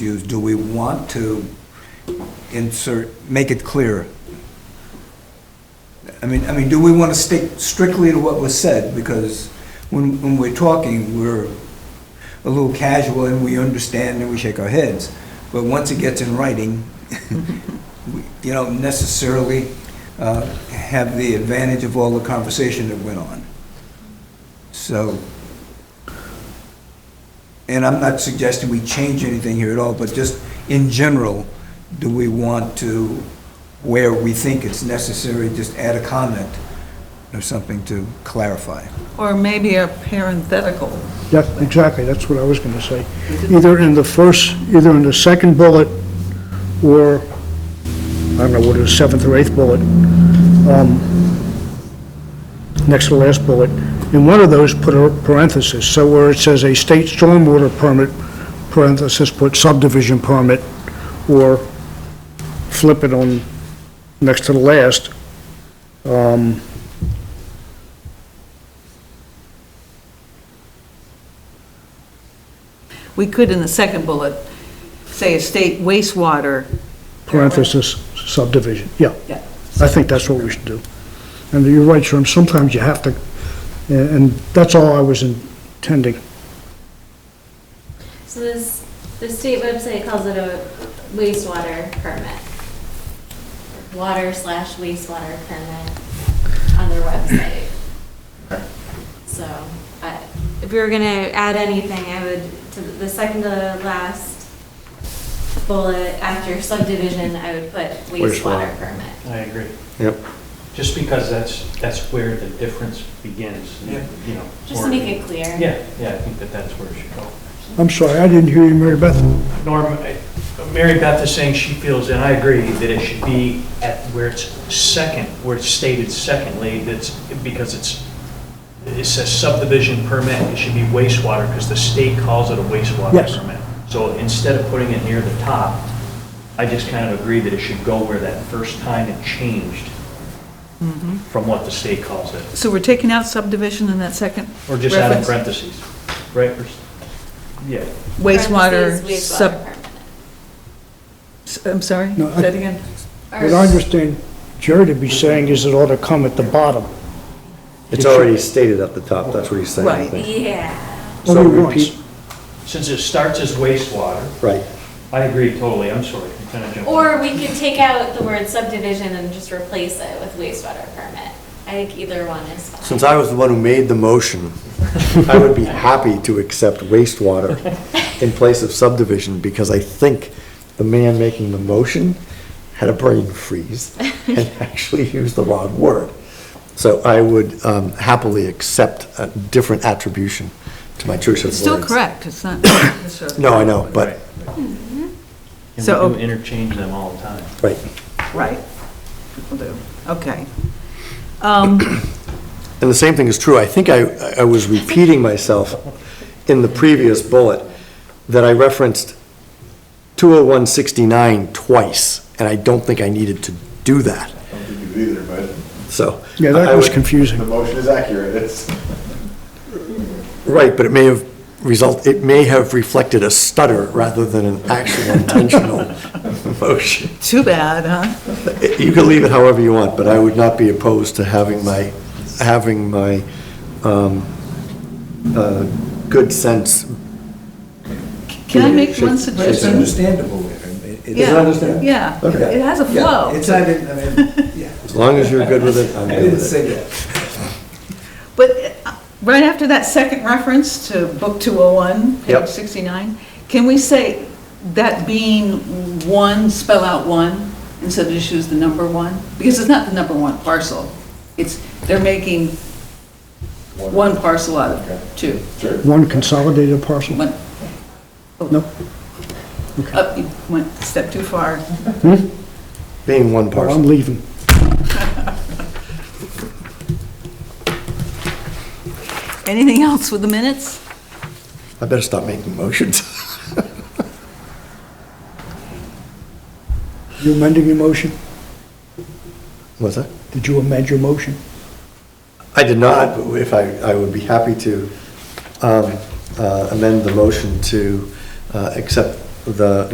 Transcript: use, do we want to insert, make it clear? I mean, I mean, do we want to stick strictly to what was said? Because when, when we're talking, we're a little casual and we understand and we shake our heads. But once it gets in writing, we- you don't necessarily uh, have the advantage of all the conversation that went on. So, and I'm not suggesting we change anything here at all, but just in general, do we want to, where we think it's necessary, just add a comment or something to clarify? Or maybe a parenthetical. Yes, exactly, that's what I was going to say. Either in the first, either in the second bullet, or, I don't know, what is seventh or eighth bullet, um, next to the last bullet, in one of those, put a parenthesis, so where it says a state stormwater permit, parenthesis, put subdivision permit, or flip it on, next to the last, We could, in the second bullet, say a state wastewater. parenthesis, subdivision, yeah. Yeah. I think that's what we should do. And you're right, Sherm, sometimes you have to, and and that's all I was intending. So this, the state website calls it a wastewater permit. Water slash wastewater permit on their website. So, I, if we were gonna add anything, I would, to the second to last bullet after subdivision, I would put wastewater Wastewater. permit. I agree. Yep. Just because that's, that's where the difference begins, you Yeah. know. Just or- to make it clear. Yeah, yeah, I think that that's where it should go. I'm sorry, I didn't hear you, Mary Beth. Norm, I- Mary Beth is saying she feels, and I agree, that it should be at where it's second, where it's stated secondly, that's, because it's, it says subdivision permit, it should be wastewater, because the state calls it a wastewater Yes. permit. So instead of putting it near the top, I just kind of agree that it should go where that first time it changed from what the state calls it, So we're taking out subdivision in that second or just add in reference? parentheses, right? Or s- Yeah, Wastewater, Parentheses, sub, wastewater permit. s- I'm sorry, No, I- say it again. Or- What I understand Jerry to be saying is it ought to come at the bottom. It's already stated at the top, that's what he's saying. I Right. think. Yeah, So Only once. repeat, since it starts as wastewater, right, I agree totally, I'm sorry, I'm kind of jumping. or we could take out the word subdivision and just replace it with wastewater permit. I think either one is fine. since I was the one who made the motion, I would be happy to accept wastewater in place of subdivision, because I think the man making the motion had a brain freeze and actually used the wrong word. So I would um, happily accept a different attribution to my choice of It's words. still correct, it's not. No, I know, but, And So- we do interchange them all the time. right. Right, people do, okay. Um, And the same thing is true, I think I, I was repeating myself in the previous bullet, that I referenced 20169 twice, and I don't think I needed to do that, I don't think you either, but so. Yeah, I that was would- the confusing. motion is accurate. It's, Right, but it may have result, it may have reflected a stutter rather than an actual intentional motion. Too bad, huh? You can leave it however you want, but I would not be opposed to having my, having my um, uh, good sense. Can I make one Shake- shake It's suggestion? understandable. It- it- Yeah, understandable? Yeah, Okay. it has a Yeah, flow. It's, I didn't, I mean, yeah, As long as you're good with it, I'm I good didn't with it. say that. But uh, right after that second reference to Book 201, page Yep. 69, can we say that being one, spell out one, instead of just use the number one? Because it's not the number one parcel. It's, they're making one parcel out of two. One consolidated parcel? One- No? Up, you went a step too far. Being Well, one I'm parcel. leaving. Anything else with the minutes? I better stop making motions. You amending your motion? What's that? Did you amend your motion? I did not, but Uh, if I, I would be happy to um, uh, amend the motion to uh, accept the